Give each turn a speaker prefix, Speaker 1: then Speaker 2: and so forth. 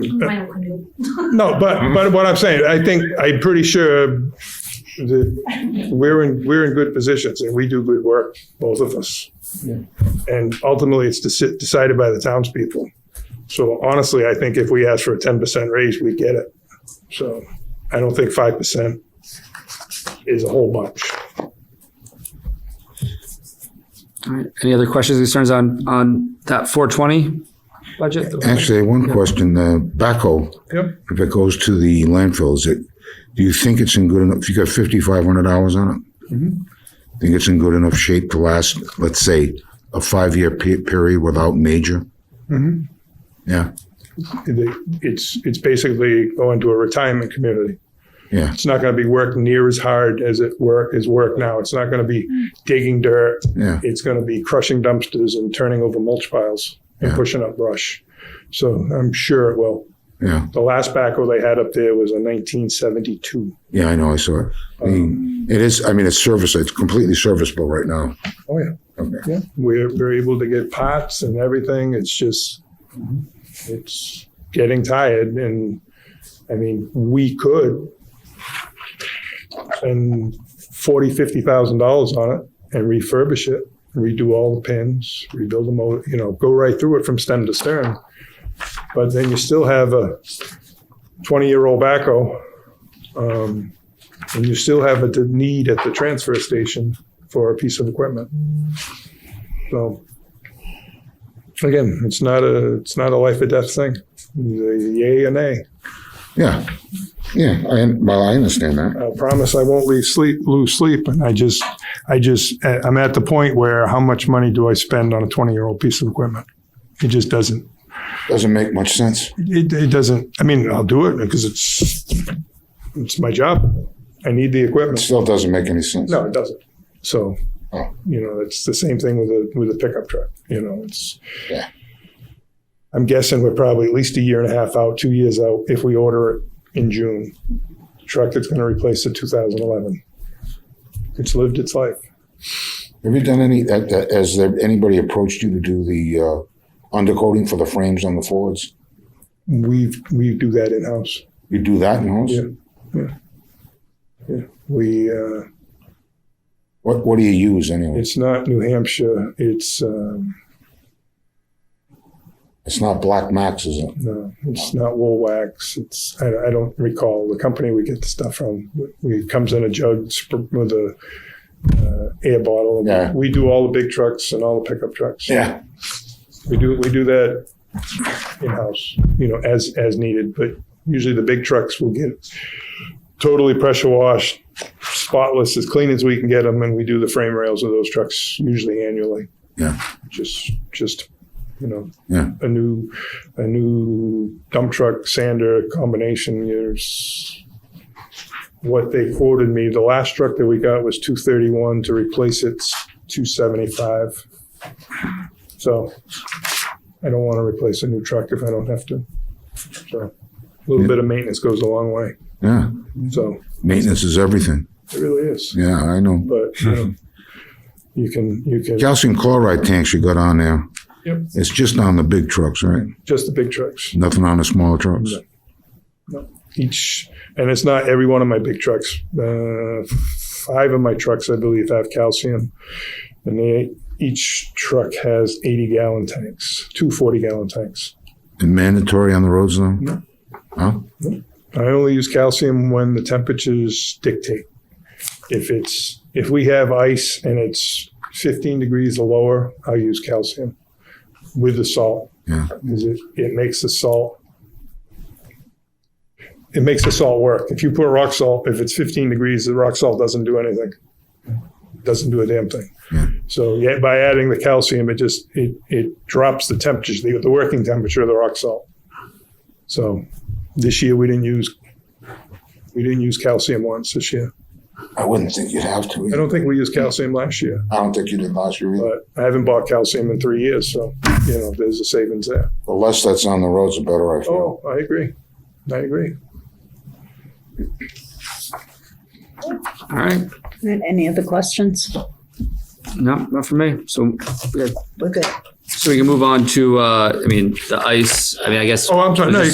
Speaker 1: Mine will do.
Speaker 2: No, but, but what I'm saying, I think, I'm pretty sure that we're in, we're in good positions and we do good work, both of us. And ultimately, it's deci- decided by the townspeople. So honestly, I think if we ask for a ten percent raise, we get it. So I don't think five percent is a whole bunch.
Speaker 3: All right. Any other questions, concerns on, on that four twenty budget?
Speaker 4: Actually, one question, uh, backhoe.
Speaker 2: Yep.
Speaker 4: If it goes to the landfill, is it, do you think it's in good enough, if you got fifty-five hundred hours on it?
Speaker 2: Mm-hmm.
Speaker 4: Think it's in good enough shape to last, let's say, a five-year pe- period without major?
Speaker 2: Mm-hmm.
Speaker 4: Yeah,
Speaker 2: The- It's, it's basically going to a retirement community.
Speaker 4: yeah,
Speaker 2: It's not gonna be worked near as hard as it work, is work now. It's not gonna be digging dirt.
Speaker 4: yeah,
Speaker 2: it's going to be crushing dumpsters and turning over mulch piles and
Speaker 4: Yeah.
Speaker 2: pushing up brush. So I'm sure it will.
Speaker 4: yeah,
Speaker 2: The last backhoe they had up there was a 1972.
Speaker 4: yeah, I know, I saw it. I
Speaker 2: Um,
Speaker 4: mean, it is, I mean, it's service, it's completely serviceable right now.
Speaker 2: Oh yeah,
Speaker 4: Okay.
Speaker 2: yeah. We're we're able to get pots and everything. It's just it's getting tired, and I mean we could spend forty fifty thousand dollars on it and refurbish it, redo all the pins, rebuild the motor, you know, go right through it from stem to stern. But then you still have a twenty year old backhoe. Um, and you still have a d- need at the transfer station for a piece of equipment. So again, it's not a it's not a life or death thing. Either Yay or nay.
Speaker 4: Yeah, yeah, I, well, I understand that.
Speaker 2: I promise I won't leave sleep lose sleep. And I just I just I- I'm at the point where how much money do I spend on a 20 year old piece of equipment? It just doesn't.
Speaker 4: Doesn't make much sense.
Speaker 2: It, it doesn't. I mean, I'll do it because it's it's my job. I need the
Speaker 4: It
Speaker 2: equipment.
Speaker 4: still doesn't make any sense.
Speaker 2: No, it doesn't. So,
Speaker 4: Oh.
Speaker 2: you know, it's the same thing with a with a pickup truck. You know, it's.
Speaker 4: Yeah.
Speaker 2: I'm guessing we're probably at least a year and a half out, two years out, if we order it in June. Truck that's going to replace the 2011. It's lived its life.
Speaker 4: Have you done any, uh, uh, has there, anybody approached you to do the uh, undercoating for the frames on the Fords?
Speaker 2: We we do that in house.
Speaker 4: You do that in-house?
Speaker 2: Yeah. We uh,
Speaker 4: What, what do you use anyway?
Speaker 2: it's not New Hampshire. It's um,
Speaker 4: It's not Black Max, is it?
Speaker 2: no, it's not wool wax. It's I, I don't recall the company we get the stuff from. We, it comes in a jug sp- with a uh, air bottle.
Speaker 4: Yeah.
Speaker 2: We do all the big trucks and all the pickup trucks.
Speaker 4: Yeah.
Speaker 2: We do, we do that in-house, you know, as, as needed, but usually the big trucks will get totally pressure washed, spotless, as clean as we can get them, and we do the frame rails of those trucks usually annually.
Speaker 4: Yeah.
Speaker 2: Just, just, you know.
Speaker 4: Yeah.
Speaker 2: A new, a new dump truck sander combination, there's what they quoted me, the last truck that we got was two thirty-one, to replace it's two seventy-five. So I don't want to replace a new truck if I don't have to. So a little bit of maintenance goes a long way.
Speaker 4: Yeah.
Speaker 2: So
Speaker 4: Maintenance is everything.
Speaker 2: it really is.
Speaker 4: Yeah, I know.
Speaker 2: But you, know, you can you can
Speaker 4: Calcium chloride tanks you got on there.
Speaker 2: Yep.
Speaker 4: It's just on the big trucks, right?
Speaker 2: just the big trucks
Speaker 4: Nothing on the smaller trucks.
Speaker 2: each, and it's not every one of my big trucks. Uh, five of my trucks, I believe, have calcium, and they each truck has 80 gallon tanks, two 40 gallon tanks.
Speaker 4: And mandatory on the roads though?
Speaker 2: No.
Speaker 4: Huh?
Speaker 2: I only use calcium when the temperatures dictate. If it's if we have ice and it's 15 degrees or lower, I use calcium with the salt
Speaker 4: Yeah.
Speaker 2: because it, it makes the salt it makes the salt work. If you put rock salt, if it's 15 degrees, the rock salt doesn't do anything. Doesn't do a damn thing.
Speaker 4: Yeah.
Speaker 2: So yeah, by adding the calcium, it just it it drops the temperature, the, the working temperature of the rock salt. So this year we didn't use we didn't use calcium once this year.
Speaker 4: I wouldn't think you'd have to.
Speaker 2: I don't think we used calcium last year,
Speaker 4: I don't think you did last year either.
Speaker 2: but I haven't bought calcium in three years, so you know there's a savings there.
Speaker 4: The less that's on the roads, the better I feel.
Speaker 2: Oh, I agree. I agree.
Speaker 3: All right.
Speaker 5: Any other questions?
Speaker 3: No, not for me. So, yeah.
Speaker 5: We're good.
Speaker 3: so we can move on to, uh, I mean, the ice, I mean, I guess.
Speaker 2: Oh, I'm sorry. No, you